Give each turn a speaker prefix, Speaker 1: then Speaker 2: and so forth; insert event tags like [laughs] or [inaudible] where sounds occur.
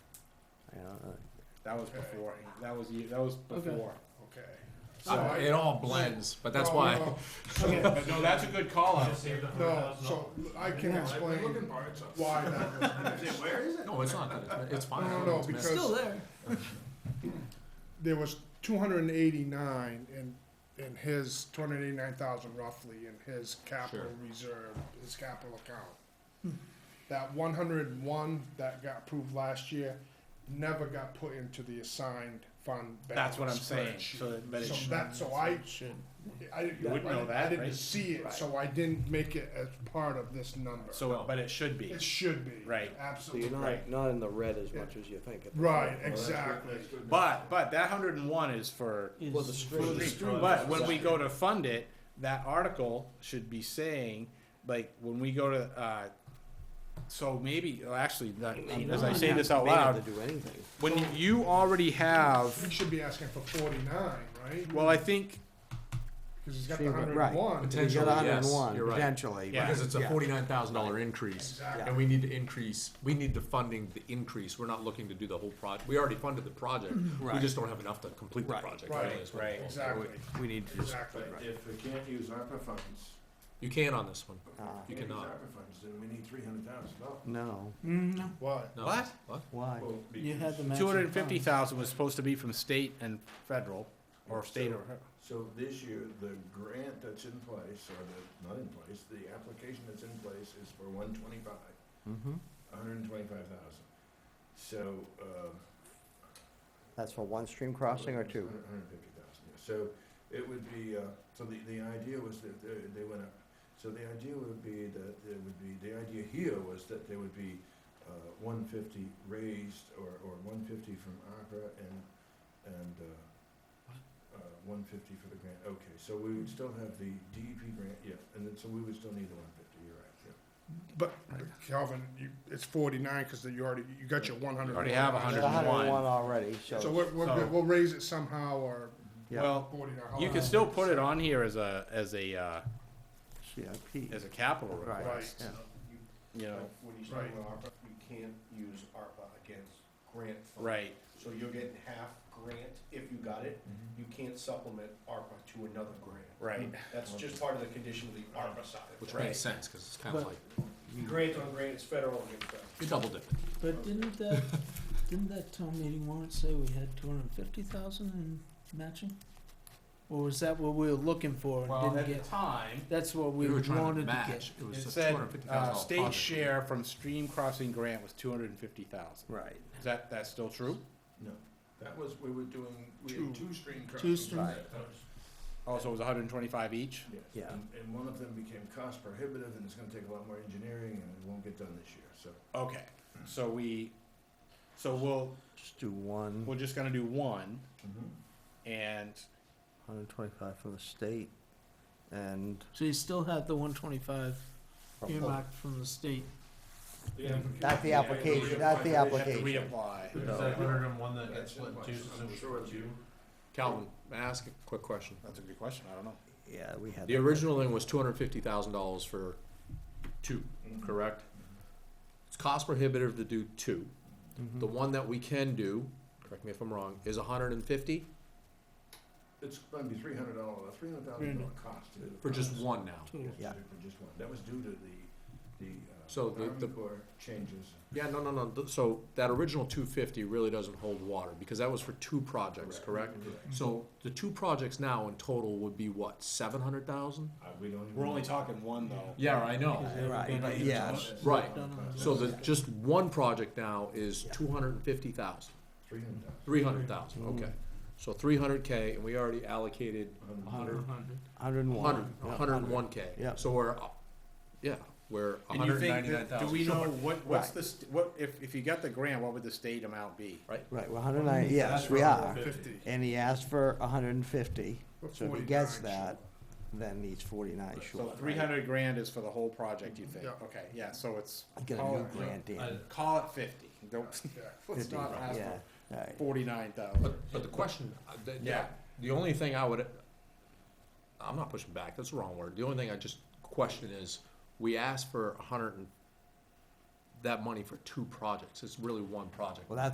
Speaker 1: That was before. That was ye- that was before.
Speaker 2: Okay. So
Speaker 3: Uh,
Speaker 2: I- Oh,
Speaker 3: it all blends, but that's
Speaker 2: No,
Speaker 3: why.
Speaker 2: no.
Speaker 1: [laughs] But no, that's a good call out.
Speaker 2: No, so I can
Speaker 4: Yeah.
Speaker 2: explain why that was the case.
Speaker 5: Where is it?
Speaker 3: No, it's not. good. It's fine.
Speaker 2: No, no, no,
Speaker 3: It's messy.
Speaker 2: because-
Speaker 4: Still there.
Speaker 2: There was two hundred and eighty-nine in, in his, two hundred and eighty-nine thousand roughly in his capital
Speaker 3: Sure.
Speaker 2: reserve, his capital account. That one hundred and one that got approved last year never got put into the assigned fund balance
Speaker 1: That's what I'm saying.
Speaker 2: spreadsheet.
Speaker 1: So, that- but it
Speaker 2: So
Speaker 1: should-
Speaker 2: that, so I, I didn't,
Speaker 1: You
Speaker 2: I
Speaker 1: wouldn't know
Speaker 2: didn't- I
Speaker 1: that,
Speaker 2: didn't
Speaker 1: right?
Speaker 2: see it, so I didn't make it as part of this number.
Speaker 1: so but it should be.
Speaker 2: It should be.
Speaker 1: Right.
Speaker 6: So you're
Speaker 2: Absolutely.
Speaker 6: not,
Speaker 1: Right.
Speaker 6: not in the red as much as you think. at the
Speaker 2: Right,
Speaker 6: moment.
Speaker 2: exactly.
Speaker 1: But but that 101 is for
Speaker 6: Well, the street.
Speaker 1: For the stream, But when we go to fund it, that article should be saying, like, when we go to, uh, so maybe, well, actually, not- as I say this out
Speaker 6: May not
Speaker 1: loud,
Speaker 6: have to do anything.
Speaker 1: when you already
Speaker 2: He
Speaker 1: have,
Speaker 2: should be asking for forty-nine, right?
Speaker 1: well, I think,
Speaker 2: Because he's got the
Speaker 6: Sure, right.
Speaker 2: hundred and one.
Speaker 6: We
Speaker 3: Potentially,
Speaker 6: got a hundred
Speaker 3: yes.
Speaker 6: and one,
Speaker 3: You're right.
Speaker 6: potentially.
Speaker 1: Yeah.
Speaker 6: right.
Speaker 3: Because it's a forty-nine thousand dollar increase,
Speaker 2: Exactly.
Speaker 3: and we need to increase, we need the funding to increase, we're not looking to do the whole project, we already funded the
Speaker 2: [clears throat]
Speaker 3: project, we
Speaker 6: Right.
Speaker 3: just don't have enough to complete the
Speaker 6: Right.
Speaker 3: project.
Speaker 2: Right.
Speaker 3: really, is what
Speaker 1: Right.
Speaker 3: it is.
Speaker 2: Exactly,
Speaker 1: we need to just,
Speaker 2: exactly.
Speaker 5: But if we can't use ARPA funds,
Speaker 3: You can on this one,
Speaker 6: Ah.
Speaker 5: if
Speaker 3: You
Speaker 5: we can't use
Speaker 3: cannot.
Speaker 5: ARPA funds, then we need three hundred thousand dollars.
Speaker 6: No,
Speaker 2: Mm-hmm.
Speaker 4: No,
Speaker 2: What?
Speaker 3: no.
Speaker 1: What?
Speaker 3: What?
Speaker 6: why?
Speaker 4: you had the.
Speaker 1: two hundred and fifty thousand was supposed to be from state and federal, or state or,
Speaker 5: So this year, the grant that's in place, or the, not in place, the application that's in place is for one twenty-five.
Speaker 6: Mhm.
Speaker 5: hundred and twenty-five thousand. So, um.
Speaker 6: That's for one stream crossing or two?
Speaker 5: Hundred and fifty thousand, yeah. So it would be, uh, so the, the idea was that they, they went up. So the idea would be that there would be, the idea here was that there would be, uh, one fifty raised or, or one fifty from ARPA and, and, uh, uh, one fifty for the grant. Okay, so we would still have the DEP grant, yeah, and then, so we would still need the one fifty, you're right, yeah.
Speaker 2: But Calvin, you, it's forty-nine because you already, you got your one hundred.
Speaker 1: Already have
Speaker 6: There's
Speaker 1: 101.
Speaker 6: hundred and one already,
Speaker 2: So
Speaker 6: so,
Speaker 2: we're, we're,
Speaker 1: So-
Speaker 2: good. we'll raise it somehow or
Speaker 6: Yeah.
Speaker 1: well,
Speaker 2: forty-nine.
Speaker 1: you
Speaker 2: however.
Speaker 1: can still put it on here as a, as a, uh,
Speaker 6: CIP.
Speaker 1: as a capital
Speaker 6: Right.
Speaker 1: request,
Speaker 6: yeah.
Speaker 1: you know,
Speaker 7: When you start
Speaker 2: Right.
Speaker 7: with ARPA, you can't use ARPA against grant funds.
Speaker 1: right,
Speaker 7: So you're getting half grant if you got it.
Speaker 5: Mm-hmm.
Speaker 7: You can't supplement ARPA to another grant.
Speaker 1: right.
Speaker 7: That's just part of the condition of the ARPA side.
Speaker 3: Which
Speaker 1: Right.
Speaker 3: makes sense, cause it's kinda
Speaker 4: But-
Speaker 3: like,
Speaker 7: Grant on grant is federal and it's uh, federal.
Speaker 3: you double dip.
Speaker 4: But didn't that, didn't that town meeting warrant say we had two hundred and fifty thousand in matching? Or was that what we were looking for and
Speaker 1: Well,
Speaker 4: didn't
Speaker 1: at the
Speaker 4: get?
Speaker 1: time,
Speaker 4: That's what
Speaker 3: We
Speaker 4: we
Speaker 3: were trying to
Speaker 4: wanted to
Speaker 3: match,
Speaker 4: get.
Speaker 3: it
Speaker 1: It
Speaker 3: was a two
Speaker 1: said,
Speaker 3: hundred and fifty thousand
Speaker 1: uh,
Speaker 3: dollar project.
Speaker 1: state share from stream crossing grant was two hundred and fifty thousand.
Speaker 6: Right.
Speaker 1: Is that, that's still true?
Speaker 5: No, that was, we were doing, we had two stream crossings.
Speaker 4: stream-
Speaker 5: at that time.
Speaker 1: Also, Oh, it was hundred and twenty-five each?
Speaker 5: Yes,
Speaker 6: Yeah.
Speaker 5: and, and one of them became cost prohibitive, and it's gonna take a lot more engineering, and it won't get done this year, so.
Speaker 1: Okay, so we, so we'll,
Speaker 6: Just do one,
Speaker 1: we're just gonna do one, and,
Speaker 6: hundred and twenty-five from the state, and
Speaker 4: So you still have the one twenty-five earmarked from the state.
Speaker 6: That's the application, that's the
Speaker 1: we have to
Speaker 6: application.
Speaker 1: reapply.
Speaker 5: That's in place. I'm sure you-
Speaker 3: Calvin, may I ask a quick question?
Speaker 1: That's a good question, I don't know.
Speaker 6: Yeah, we had.
Speaker 3: The
Speaker 6: that.
Speaker 3: original thing was two hundred and fifty thousand dollars for two,
Speaker 5: Mhm.
Speaker 3: correct? It's cost prohibitive to do two. The one that we can do, correct me if I'm wrong, is hundred and fifty
Speaker 5: It's gonna be three hundred dollar, three hundred thousand dollar cost. to do the
Speaker 3: Mm-hmm. for just
Speaker 5: process.
Speaker 3: one now.
Speaker 5: Yes,
Speaker 6: Yeah.
Speaker 5: For just one, that was due to the, the,
Speaker 3: So
Speaker 5: uh,
Speaker 3: the- the-
Speaker 5: Army Corps changes.
Speaker 3: Yeah, no, no, no, th- so that original two fifty really doesn't hold water, because that was for two projects, correct?
Speaker 5: Mm-hmm.
Speaker 3: So the two projects now in total would be what, seven hundred thousand?
Speaker 5: Uh, we don't even.
Speaker 1: We're only talking one, though.
Speaker 3: Yeah, I know.
Speaker 6: Right, but yeah,
Speaker 3: Right,
Speaker 4: No, no, no.
Speaker 3: so the, just one project now is two hundred and fifty thousand.
Speaker 5: Three hundred thousand.
Speaker 3: Three hundred thousand,
Speaker 6: Mm-hmm.
Speaker 3: okay. So three hundred K, and we already allocated a hundred,
Speaker 6: hundred and one.
Speaker 3: hundred, a hundred and one K.
Speaker 6: Yeah.
Speaker 3: So we're, uh, yeah, we're a
Speaker 1: And you
Speaker 3: hundred and
Speaker 1: think,
Speaker 3: ninety-nine
Speaker 1: that- do we
Speaker 3: thousand
Speaker 1: know
Speaker 3: short,
Speaker 1: what, what's
Speaker 6: Right.
Speaker 1: the, st- what, if, if you got the grant, what would the state amount be?
Speaker 3: right?
Speaker 6: Right, well, hundred and nine, yes, we are.
Speaker 2: Fifty.
Speaker 6: And he asked for hundred and fifty,
Speaker 2: But
Speaker 6: so if he gets
Speaker 2: 49
Speaker 6: that, then he's forty-nine short.
Speaker 1: So
Speaker 6: right?
Speaker 1: three hundred grand is for the whole project, you think?
Speaker 2: Yeah.
Speaker 1: Okay, yeah, so it's,
Speaker 6: Get a
Speaker 1: call
Speaker 6: new
Speaker 1: it,
Speaker 6: grant in.
Speaker 3: uh,
Speaker 1: call it fifty,
Speaker 6: [laughs]
Speaker 1: don't,
Speaker 2: Yeah.
Speaker 1: let's
Speaker 6: Fifty,
Speaker 1: not ask
Speaker 6: yeah,
Speaker 1: for
Speaker 6: right.
Speaker 1: forty-nine thousand.
Speaker 3: But, but the question, uh, the, yeah,
Speaker 1: Yeah.
Speaker 3: the only thing I would, I'm not pushing back, that's the wrong word. The only thing I just question is, we asked for a hundred and, that money for two projects, it's really one project.
Speaker 6: Well, that's